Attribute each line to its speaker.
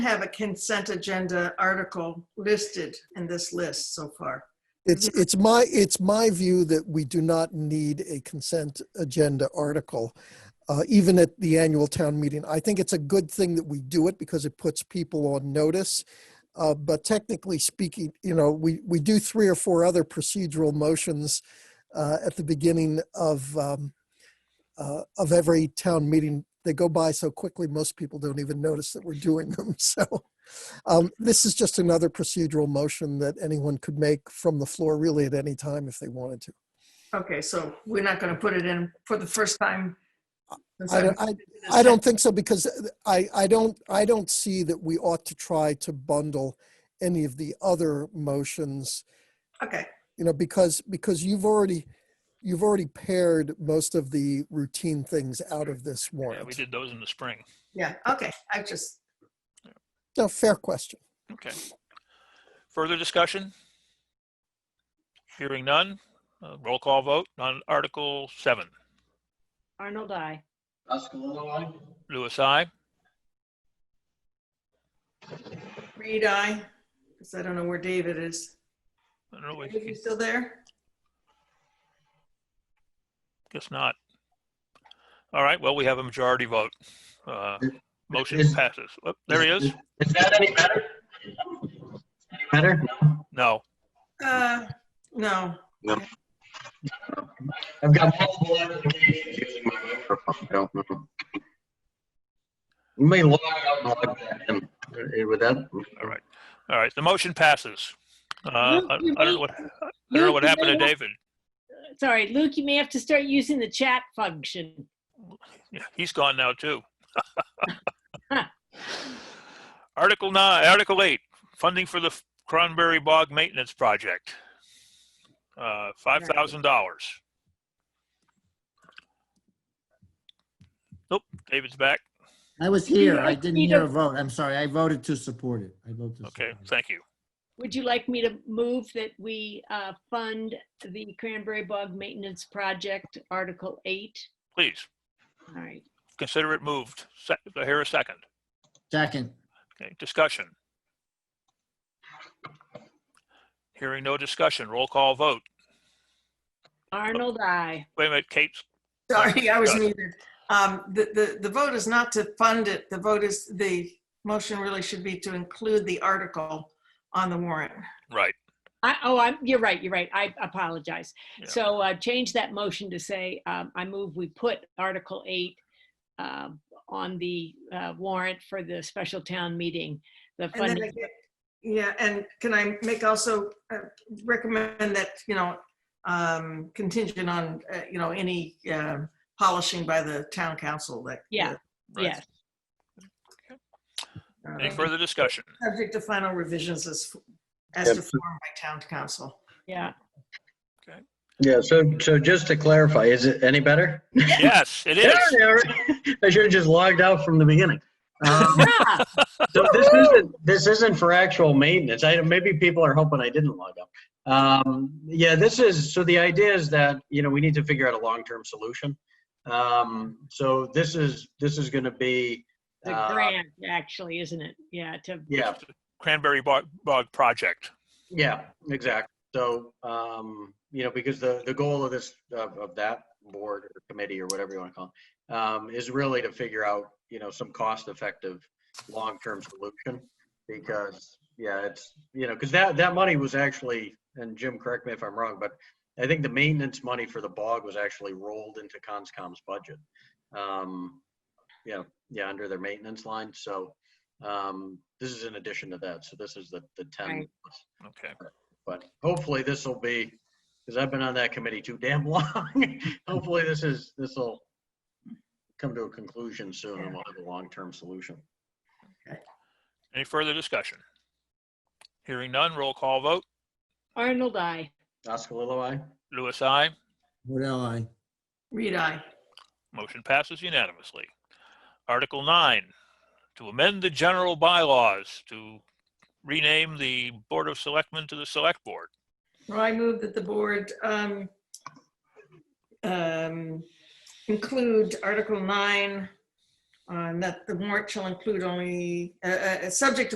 Speaker 1: have a consent agenda article listed in this list so far.
Speaker 2: It's, it's my, it's my view that we do not need a consent agenda article, uh, even at the annual town meeting. I think it's a good thing that we do it because it puts people on notice. Uh, But technically speaking, you know, we, we do three or four other procedural motions uh, at the beginning of, um, uh, of every town meeting. They go by so quickly, most people don't even notice that we're doing them, so. Um, This is just another procedural motion that anyone could make from the floor really at any time if they wanted to.
Speaker 1: Okay, so we're not going to put it in for the first time.
Speaker 2: I don't, I, I don't think so because uh, I, I don't, I don't see that we ought to try to bundle any of the other motions,
Speaker 1: Okay,
Speaker 2: you know, because, because you've already, you've already paired most of the routine things out of this
Speaker 3: Yeah, we
Speaker 2: warrant.
Speaker 3: did those in the spring.
Speaker 1: yeah, okay, I just,
Speaker 2: No, fair question.
Speaker 3: Okay. Further discussion? Hearing none. Uh, Roll call vote on Article 7.
Speaker 4: Arnold, I.
Speaker 5: Oscar Lilloye,
Speaker 3: Louis, I.
Speaker 1: read I, because I don't know where David is.
Speaker 3: I don't know,
Speaker 1: Are you
Speaker 3: we-
Speaker 1: still there?
Speaker 3: Guess not. All right, well, we have a majority vote. Uh, Motion
Speaker 5: Is-
Speaker 3: passes. Oh, There he is.
Speaker 5: Is that any better? Any better?
Speaker 3: No.
Speaker 5: No.
Speaker 1: Uh, no,
Speaker 5: I've got multiple applications using my microphone. I don't know. You may log out and log back in. Uh, Would that?
Speaker 3: All right. All right, the motion passes. Uh, I I don't know what, I don't know what happened to David.
Speaker 4: Sorry, Luke, you may have to start using the chat function.
Speaker 3: Yeah, he's gone now too. Article nine, Article eight, funding for the Cranberry Bog Maintenance Project. Uh, five thousand dollars. Nope, David's back.
Speaker 6: I was here.
Speaker 4: Yeah,
Speaker 6: I didn't
Speaker 4: need
Speaker 6: hear
Speaker 4: a-
Speaker 6: a vote. I'm sorry. I voted to support it. I voted to.
Speaker 3: Okay,
Speaker 6: support it.
Speaker 3: thank you.
Speaker 4: Would you like me to move that we uh, fund the Cranberry Bog Maintenance Project, Article 8?
Speaker 3: Please,
Speaker 4: All right,
Speaker 3: consider it moved. Se- I hear a second.
Speaker 6: Second,
Speaker 3: Okay, discussion. Hearing no discussion, roll call vote.
Speaker 4: Arnold, I.
Speaker 3: Wait a minute, Kate's,
Speaker 1: sorry, I was
Speaker 3: Good.
Speaker 1: muted. Um, The, the, the vote is not to fund it, the vote is, the motion really should be to include the article on the warrant.
Speaker 3: right,
Speaker 4: I, oh, I'm, you're right, you're right. I apologize.
Speaker 3: Yeah.
Speaker 4: So uh, change that motion to say, um, I move we put Article 8 um, on the uh, warrant for the special town meeting. The
Speaker 1: And then
Speaker 4: funding,
Speaker 1: again- Yeah, and can I make also uh, recommend that, you know, um, contingent on, uh, you know, any um, polishing by the town council that.
Speaker 4: Yeah.
Speaker 3: right.
Speaker 4: yes.
Speaker 1: uh,
Speaker 3: Any further discussion?
Speaker 1: Subject to final revisions as, as to form by town council.
Speaker 4: Yeah,
Speaker 5: Yeah, so, so just to clarify, is it any better?
Speaker 3: Yes, it is.
Speaker 5: Yeah, yeah, I should have just logged out from the beginning. Um,
Speaker 4: Ah,
Speaker 5: So this isn't, this isn't for actual maintenance. I, maybe people are hoping I didn't log up. Um, yeah, this is, so the idea is that, you know, we need to figure out a long-term solution. Um, so this is, this is gonna be,
Speaker 4: the
Speaker 5: uh,
Speaker 4: grant, actually, isn't it? Yeah, to
Speaker 5: yeah,
Speaker 3: Cranberry Bog, Bog Project.
Speaker 5: yeah, exactly. So, um, you know, because the, the goal of this, of, of that board or committee or whatever you wanna call it, um, is really to figure out, you know, some cost-effective, long-term solution. because yeah, it's you know because that that money was actually and Jim, correct me if I'm wrong, but I think the maintenance money for the bog was actually rolled into Conscom's budget. Um, yeah, yeah, under their maintenance line. So um, this is in addition to that. So this is the the ten.
Speaker 4: Right.
Speaker 5: plus.
Speaker 3: Okay.
Speaker 5: But hopefully this will be because I've been on that committee too damn long. hopefully this is this will come to a conclusion soon, and we'll have a long-term solution.
Speaker 3: Any further discussion? Hearing none, roll call vote.
Speaker 4: Arnold, I.
Speaker 5: Oscar Lilloye.
Speaker 3: Louis, I.
Speaker 6: Waddell, aye.
Speaker 1: Read I.
Speaker 3: Motion passes unanimously. Article nine, to amend the general bylaws to rename the Board of Selectmen to the Select Board.
Speaker 1: Well, I move that the board um, um, include Article 9 um, uh, and that the warrant shall include only, uh, uh, uh, subject